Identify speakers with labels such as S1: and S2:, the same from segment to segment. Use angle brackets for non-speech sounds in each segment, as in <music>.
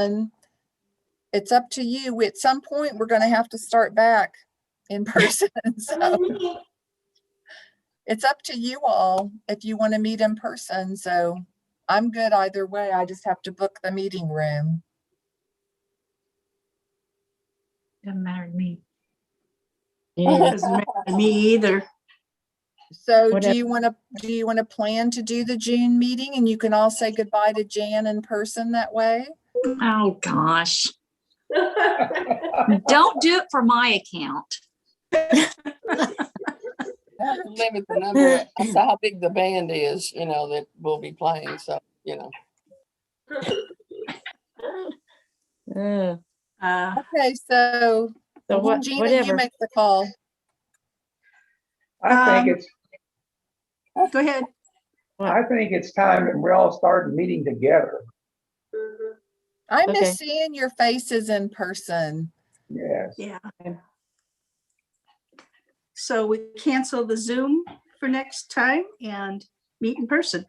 S1: And it's up to you. At some point, we're gonna have to start back in <laughs> person. So it's up to you all if you want to meet in person. So I'm good either way. I just have to book the meeting room.
S2: Doesn't matter to me.
S3: Yeah, doesn't matter to Me either.
S1: So do
S4: Whatever.
S1: you want to, do you want to plan to do the June meeting and you can all say goodbye to Jan in person that way?
S2: Oh, gosh. Don't do it for my account.
S5: limit
S4: <laughs>
S5: the number, that's how big the band is, you know, that will be playing, so, you know.
S4: Uh,
S3: Uh,
S1: Okay, so
S4: So what,
S1: Gina, you
S4: whatever.
S1: make the call.
S6: I
S3: Um,
S6: think it's,
S3: Go ahead.
S6: I think it's time that we all start meeting together.
S1: I
S4: Okay.
S1: miss seeing your faces in person.
S6: Yes.
S3: Yeah. So we cancel the Zoom for next time and meet in person.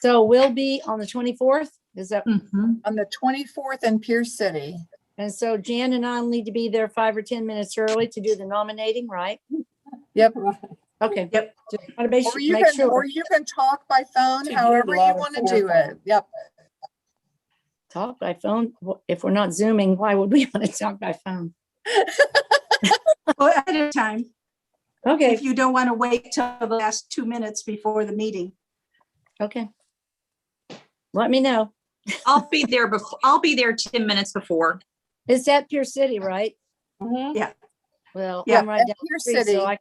S4: So we'll be on the twenty-fourth, is that,
S2: Mhm.
S1: on the 24th in Pierce City.
S4: and so Jan and I need to be there five or ten minutes early to do the nominating, right?
S1: Yep.
S4: Okay.
S3: Yep.
S4: Just wanna make
S1: Or
S4: su-
S1: you
S4: make
S1: can, or
S4: sure,
S1: you can talk by phone,
S5: To do
S1: however you
S5: live
S1: want to
S5: phone
S1: do it. Yep.
S4: talk by phone, Wh- if we're not zooming, why would we <laughs> wanna talk by phone?
S3: Or at a time,
S4: Okay,
S3: if you don't want to wait till the last two minutes before the meeting.
S4: okay. Let me know,
S2: I'll be there before, I'll be there 10 minutes before.
S4: it's at Pier City, right? Mm-hmm.
S5: Mhm.
S4: Well,
S3: Yeah,
S4: I'm right
S1: In
S4: down
S1: Pierce
S4: the street,
S1: City.
S4: so I,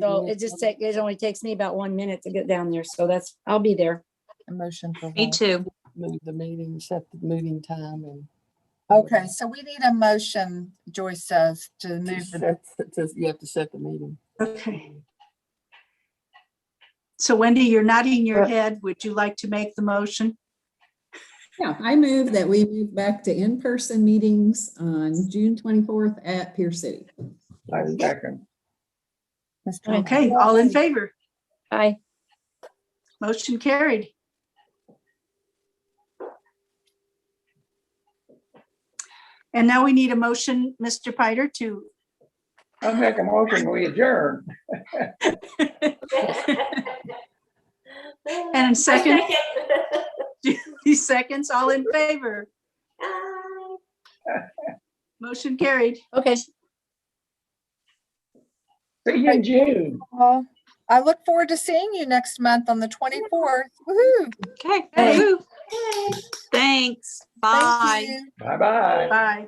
S4: so it just take, it only takes me about one minute to get down there, so that's, I'll be there.
S1: A Motion for
S2: Me
S1: vote.
S2: too.
S5: Move the meeting, set the meeting time and.
S1: Okay, so we need a motion, Joyce says, to
S5: To
S1: move the,
S5: <laughs> set- set- to- You have to set the meeting. Mm-hmm.
S3: Okay. So Wendy, you're nodding your head. Would you like to make the motion?
S7: Yeah, I move that we move back to in-person meetings on June twenty-fourth at Pier City.
S6: I second.
S1: Mr.
S3: Okay, all in favor?
S4: Bye.
S3: Motion carried. And now we need a motion, Mr. Piter, to
S6: I make a motion, we adjourn.
S3: And second? <laughs> These seconds, all in favor. Motion carried.
S4: okay.
S6: See you in June.
S1: Paul. I look forward to seeing you next month on the 24th. Woohoo!
S2: Okay.
S3: Hey.
S2: Woo. Thanks. Bye.
S1: Thank you.
S6: Bye-bye.
S3: Bye.